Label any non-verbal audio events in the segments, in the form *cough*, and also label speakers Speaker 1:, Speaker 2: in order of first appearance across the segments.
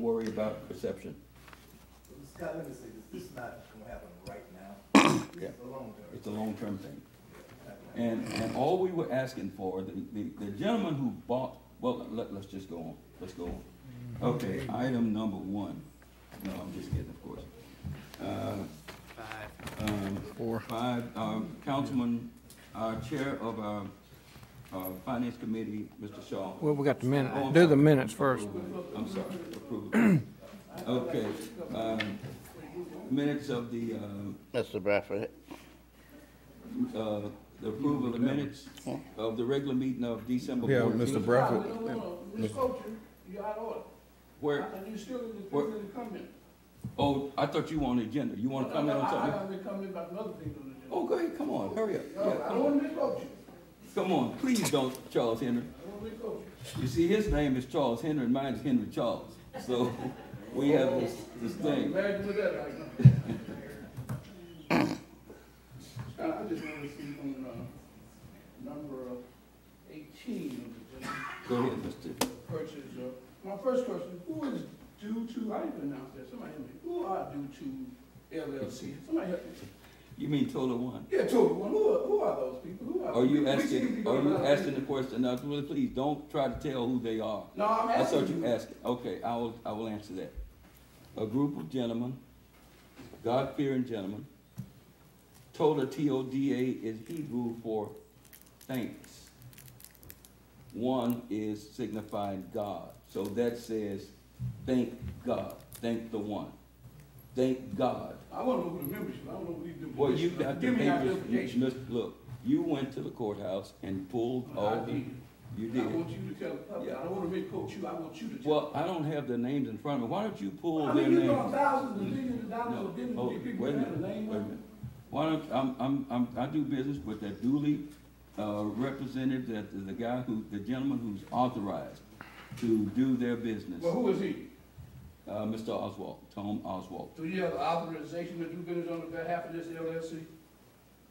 Speaker 1: worry about perception.
Speaker 2: Scott, let me say this, this is not gonna happen right now. This is a long term.
Speaker 1: It's a long-term thing. And, and all we were asking for, the, the- the gentleman who bought, well, let, let's just go on, let's go on. Okay, item number one. No, I'm just kidding, of course. Four. Five, um, Councilman, uh, Chair of our, uh, Finance Committee, Mr. Shaw.
Speaker 3: Well, we got the minute, do the minutes first.
Speaker 1: I'm sorry, approval. Okay, um, minutes of the, uh,
Speaker 4: Mr. Bradford,
Speaker 1: uh, the approval of the minutes of the regular meeting of December
Speaker 5: Yeah,
Speaker 1: fourteenth.
Speaker 5: Mr. Bradford,
Speaker 6: No, no, no, we spoke you, you're out of order,
Speaker 1: Where,
Speaker 6: and you still in the,
Speaker 1: What?
Speaker 6: in the comment.
Speaker 1: oh, I thought you were on the agenda. You want to comment on
Speaker 6: I- I- I
Speaker 1: something?
Speaker 6: gotta be coming about another thing on the
Speaker 1: Oh, go ahead, come on, hurry up.
Speaker 6: agenda.
Speaker 1: Yeah, come
Speaker 6: I don't
Speaker 1: on.
Speaker 6: wanna misquote you,
Speaker 1: Come on, please don't, Charles Henry.
Speaker 6: I don't wanna misquote you.
Speaker 1: You see, his name is Charles Henry, and mine is Henry Charles. So *laughs* we have this, this
Speaker 6: I'm
Speaker 1: thing.
Speaker 6: married to that
Speaker 1: *coughs*
Speaker 6: right now. Scott, I just wanna see on, uh, number uh, eighteen of the agenda,
Speaker 1: Go ahead, Mr.
Speaker 6: purchase, uh, my first question, who is due to, I didn't pronounce that, somebody help me, who are due to LLC? Somebody help me.
Speaker 1: You mean Total One?
Speaker 6: Yeah, Toby, well, who are, who are those people? Who are?
Speaker 1: Are you
Speaker 6: we- we should be
Speaker 1: asking, are
Speaker 6: going
Speaker 1: you
Speaker 6: out.
Speaker 1: asking the question? Now, really, please don't try to tell who they are.
Speaker 6: No, I'm
Speaker 1: That's what
Speaker 6: asking
Speaker 1: you
Speaker 6: you.
Speaker 1: asking. Okay, I will, I will answer that. A group of gentlemen, God-fearing gentlemen, Toda, T-O-D-A is Hebrew for thanks. One is signifying God, so that says, thank God, thank the one, thank God.
Speaker 6: I want to know who the membership, I don't know who these members.
Speaker 1: Well, you got the
Speaker 6: Give me that
Speaker 1: papers,
Speaker 6: identification.
Speaker 1: you- Miss- look, you went to the courthouse and pulled
Speaker 6: I
Speaker 1: all,
Speaker 6: did.
Speaker 1: the- Oh, you
Speaker 6: I
Speaker 1: did.
Speaker 6: want you to tell, the public. I don't want to make coach you, I want you to tell.
Speaker 1: Well, I don't have their names in front of me, why don't you pull their
Speaker 6: I mean,
Speaker 1: names?
Speaker 6: you know, thousands and millions of dollars
Speaker 1: No,
Speaker 6: of giving
Speaker 1: oh,
Speaker 6: to
Speaker 1: wait
Speaker 6: these
Speaker 1: a
Speaker 6: people,
Speaker 1: minute,
Speaker 6: and the name
Speaker 1: wait a
Speaker 6: of
Speaker 1: minute. Why don't, I'm, I'm, I'm, I do business with that duly, uh, representative, that, the guy who, the gentleman who's authorized to do their business,
Speaker 6: Well,
Speaker 1: uh,
Speaker 6: who is he?
Speaker 1: Mr. Oswald, Tom Oswald.
Speaker 6: Do you have authorization to do business on behalf of this LLC?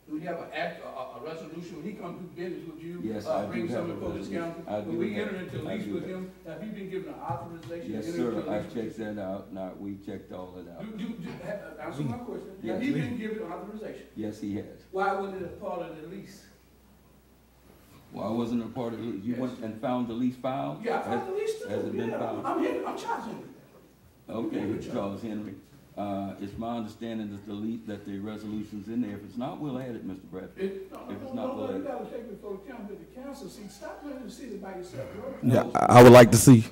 Speaker 6: Do you have an act, a, a a resolution, when he comes do business with you?
Speaker 1: Yes,
Speaker 6: uh,
Speaker 1: I do
Speaker 6: Bring
Speaker 1: have
Speaker 6: something
Speaker 1: a
Speaker 6: before this
Speaker 1: resolution.
Speaker 6: council?
Speaker 1: I do
Speaker 6: When we
Speaker 1: have-
Speaker 6: enter into
Speaker 1: I
Speaker 6: lease
Speaker 1: do
Speaker 6: with
Speaker 1: have.
Speaker 6: him, have you been given an authorization? to
Speaker 1: Yes,
Speaker 6: enter
Speaker 1: sir,
Speaker 6: into a
Speaker 1: I
Speaker 6: lease with
Speaker 1: checked that out, now, we checked all that out,
Speaker 6: You, you, you, ha- answer my question.
Speaker 1: Yes,
Speaker 6: Have you
Speaker 1: we-
Speaker 6: been given authorization?
Speaker 1: yes, he has.
Speaker 6: Why wasn't it a part of the lease?
Speaker 1: Well, I wasn't a part of, it. you
Speaker 6: Yes.
Speaker 1: went and found the lease file?
Speaker 6: Yeah, I filed the lease too.
Speaker 1: Has it been
Speaker 6: Yeah,
Speaker 1: filed?
Speaker 6: I'm here, I'm charging you.
Speaker 1: Okay,
Speaker 6: Good job.
Speaker 1: Charles Henry, uh, it's my understanding that the lease, that the resolution's in there, if it's not, we'll add it, Mr. Bradford.
Speaker 6: It, no,
Speaker 1: If it's
Speaker 6: no,
Speaker 1: not
Speaker 6: no, no, you
Speaker 1: voted.
Speaker 6: gotta take it for the council, the council, see, stop letting the city by yourself, bro.
Speaker 5: Yeah, I I would like to see,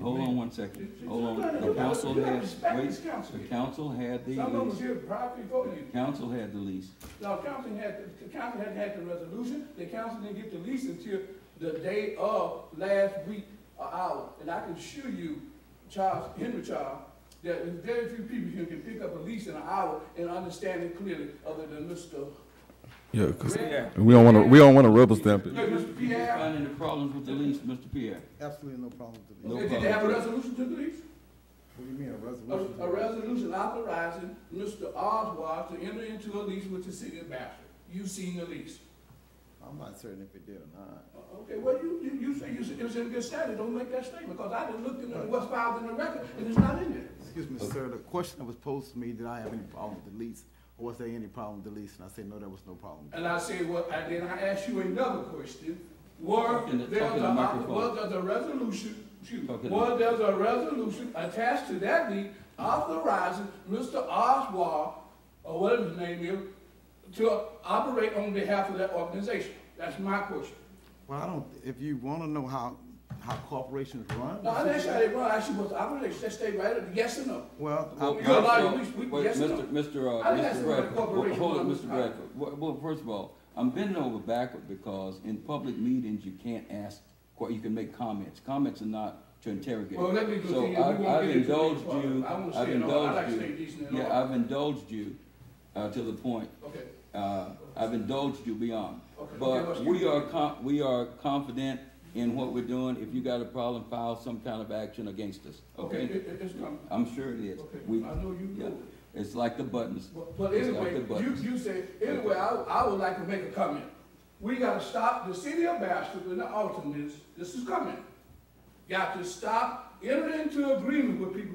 Speaker 1: Hold on one second, hold
Speaker 6: You gotta-
Speaker 1: on,
Speaker 6: you
Speaker 1: the
Speaker 6: gotta-
Speaker 1: council
Speaker 6: you gotta
Speaker 1: has,
Speaker 6: respect this council.
Speaker 1: wait, the council had the
Speaker 6: Some of us
Speaker 1: lease,
Speaker 6: here probably voted you.
Speaker 1: council had the lease.
Speaker 6: Now, council had, the council hadn't had the resolution, the council didn't get the lease until the day of last week or hour. And I can assure you, Charles, Henry Charles, that there's very few people here can pick up a lease in an hour and understand it clearly, other than Mr.
Speaker 5: yeah, 'cause
Speaker 6: Red.
Speaker 5: we don't want to, we don't want to rubber stamp
Speaker 6: No,
Speaker 5: it.
Speaker 6: Mr. Pierre,
Speaker 1: Finding the problems with the lease, Mr. Pierre,
Speaker 2: Absolutely no problem with
Speaker 1: No
Speaker 6: did they have a resolution to the lease?
Speaker 2: What do you mean, a
Speaker 6: A,
Speaker 2: resolution?
Speaker 6: a resolution authorizing Mr. Oswald to enter into a lease with the city of Bastrop. You seen the lease.
Speaker 2: I'm not certain if it did or not.
Speaker 6: Uh, Okay, well, you, you, you say, you say it was in good standing, don't make that statement, because I done looked in the, what's filed in the record, and it's not in there.
Speaker 2: Excuse me, sir, the question that was posed to me, did I have any problem with the lease? Or was there any problem with the lease? And I said, no, there was no problem.
Speaker 6: And I said, well, and then I asked you another question. Were
Speaker 1: Talk in the-
Speaker 6: there,
Speaker 1: talk in the
Speaker 6: a-
Speaker 1: microphone.
Speaker 6: was there a resolution, excuse me,
Speaker 1: Talk in the-
Speaker 6: was there a resolution attached to that lease authorizing Mr. Oswald, or whatever his name is, to operate on behalf of that organization? That's my question.
Speaker 2: Well, I don't, if you wanna know how, how corporations run.
Speaker 6: Now, I didn't ask you how they run, I asked you what's the operation, just stay right at the yes or no.
Speaker 2: Well,
Speaker 1: Well,
Speaker 2: I-
Speaker 6: You got a lot of
Speaker 1: Council-
Speaker 6: lease- we-
Speaker 1: wait,
Speaker 6: yes or no?
Speaker 1: Mr. Mr. Uh,
Speaker 6: I didn't ask
Speaker 1: Mr.
Speaker 6: you about the
Speaker 1: Bradford, Well,
Speaker 6: corporation,
Speaker 1: hold it,
Speaker 6: I'm
Speaker 1: Mr.
Speaker 6: sorry.
Speaker 1: Bradford. Well, well, first of all, I'm bending over backward because in public meetings, you can't ask, que- you can make comments. Comments are not to interrogate.
Speaker 6: Well, let me
Speaker 1: So
Speaker 6: continue. We
Speaker 1: I've-
Speaker 6: won't
Speaker 1: I've
Speaker 6: get into
Speaker 1: indulged
Speaker 6: the-
Speaker 1: you-
Speaker 6: I won't
Speaker 1: I've
Speaker 6: say it all. I like
Speaker 1: indulged
Speaker 6: staying
Speaker 1: you.
Speaker 6: decent and all.
Speaker 1: Yeah, I've indulged you, uh, to the point
Speaker 6: Okay,
Speaker 1: uh, I've indulged you beyond.
Speaker 6: Okay.
Speaker 1: But we are com, we are confident in what we're doing. If you got a problem, file some kind of action against us, okay?
Speaker 6: okay, it, it- it's coming.
Speaker 1: I'm sure it is.
Speaker 6: Okay,
Speaker 1: We,
Speaker 6: I know you
Speaker 1: yeah,
Speaker 6: do.
Speaker 1: it's like the buttons.
Speaker 6: But- But
Speaker 1: It's like
Speaker 6: anyway,
Speaker 1: the
Speaker 6: you,
Speaker 1: buttons.
Speaker 6: you said, anyway, I, I would like to make a comment. We gotta stop, the city of Bastrop and the Alton is, this is coming. Got to stop entering into agreement with people